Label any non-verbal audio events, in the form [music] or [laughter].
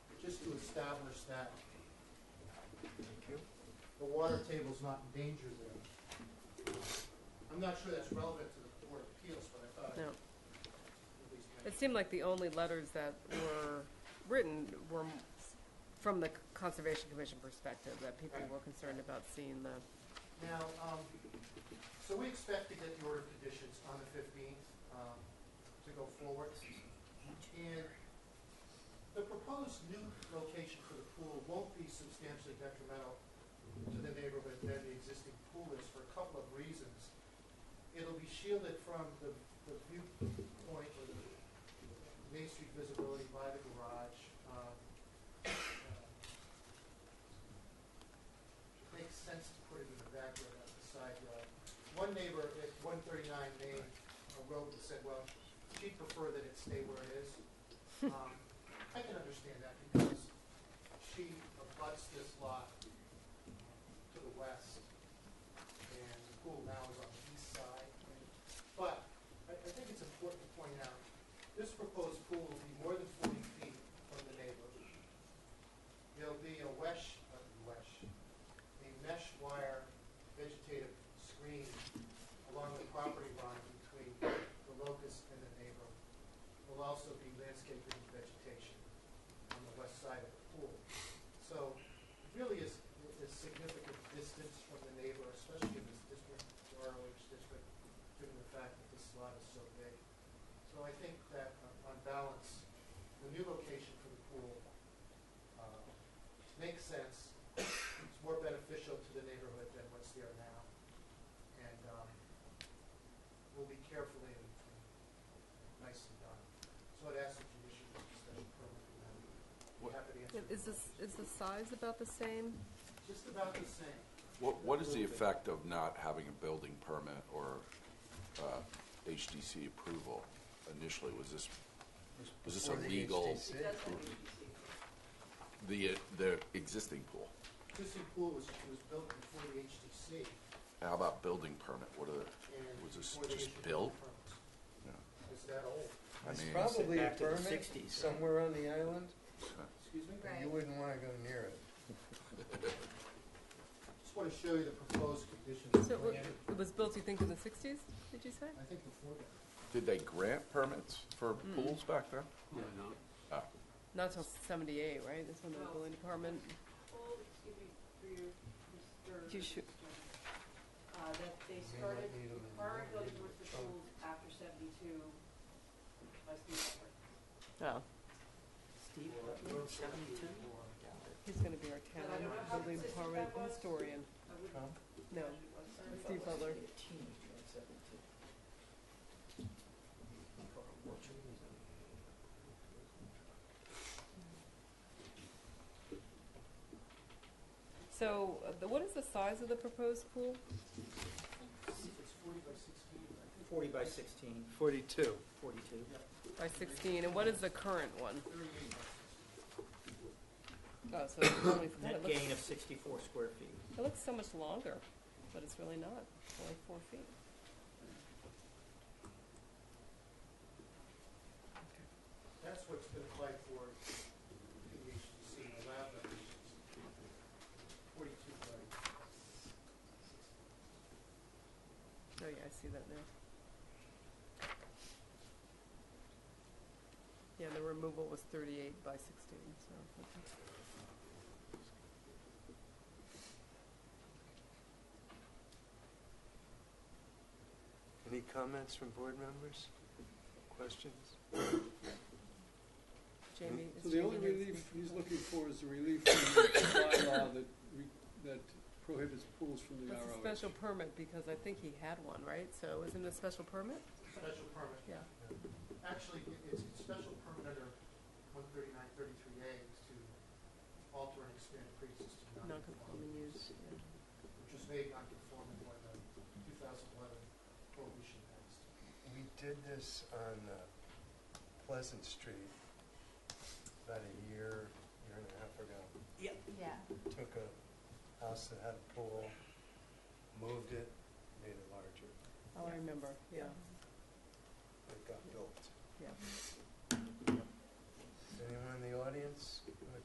establish that the water table's not in danger there. I'm not sure that's relevant to the Board of Appeals, but I thought I at No. least It mentioned. seemed like the only letters that were written were from the Conservation Commission perspective, that people were concerned about seeing the, Now, um, so we expect to get the order of conditions on the fifteenth, um, to go forward. And the proposed new location for the pool won't be substantially detrimental to the neighborhood than the existing pool is for a couple of reasons. It'll be shielded from the, the viewpoint or the Main Street visibility by the garage. um, uh, makes sense to put it in the backyard, not the side yard. One neighbor at one thirty-nine named a road and said, well, she'd prefer that it stay where it is. Um, I can understand that because she abuts this lot to the west, and the pool now is on the east side. But I, I think it's important to point out, this proposed pool will be more than forty feet from the neighbor. There'll be a wesh, a wesh, a mesh wire vegetative screen along the property line between the locust and the neighbor. Will also be landscaping and vegetation on the west side of the pool. So it really is a significant distance from the neighbor, especially in this district, the ROH district, given the fact that this lot is so big. So I think that uh, on balance, the new location for the pool uh, makes sense it's more beneficial to the neighborhood than what's there now. And um, will be carefully and and nicely done. So I'd ask that you issue a special permit for that. Be What- happy to answer. is your this, is the size about the same? questions. Just about the same. What, what is the effect of not having a building permit or uh, HDC approval initially? Was this, was this a legal, the, uh, the existing pool? Existing pool was, was built before the HDC How about building permit? What are the, and. Was this before they just issued built? permits. Yeah. It's that old. I It's mean, probably a Back to the permit 60s, right? somewhere on the island, Excuse me? and you wouldn't wanna go near it. Just want to show you the proposed conditions. So it wa- it was built, you think, in the sixties, did you say? I think before that. did they grant permits for pools back then? Oh, Not till seventy-eight, right, that's when the building department, excuse me, for your, Mr. You should- Uh, that You may they not started need 'em in the- requiring building permits for schools after seventy-two by Steve oh, Albert. Steve, Or- or- seventy-two? or- he's gonna be our town building department historian. I wouldn't Huh? No, imagine it was. Steve Butler. So, uh, the- what is the size of the proposed pool? It's forty by sixteen, I think. Forty by sixteen, Forty-two. forty-two. By sixteen, and what is the current one? Thirty-eight by Oh, so it's only, God, it [coughs] Net looks, gain of sixty-four square feet. it looks so much longer, but it's really not, It's only four feet. That's what's been applied for in the HDC, the lab dimensions, forty-two by Oh, yeah, I see that now. Yeah, the removal was thirty-eight by sixteen, so, okay. Any comments from board members? Questions? Jamie, is So the only Jamie here? relief he's looking for is the relief from the [coughs] bylaw that, re- that prohibits pools from the That's a ROH. special permit, because I think he had one, right? So isn't it a special permit? special permit. Yeah. Actually, it- it's a special permit under one thirty-nine, thirty-three A to alter and expand pre-existing Non-conforming non-conforming, use, yeah. which was made non-conforming by the two thousand eleven prohibition act. We did this on uh, Pleasant Street about a year, year and a half ago. Yeah. Took a house that had a pool, moved it, made it larger, Oh, I remember, yeah. it got built. Yeah. Anyone in the audience?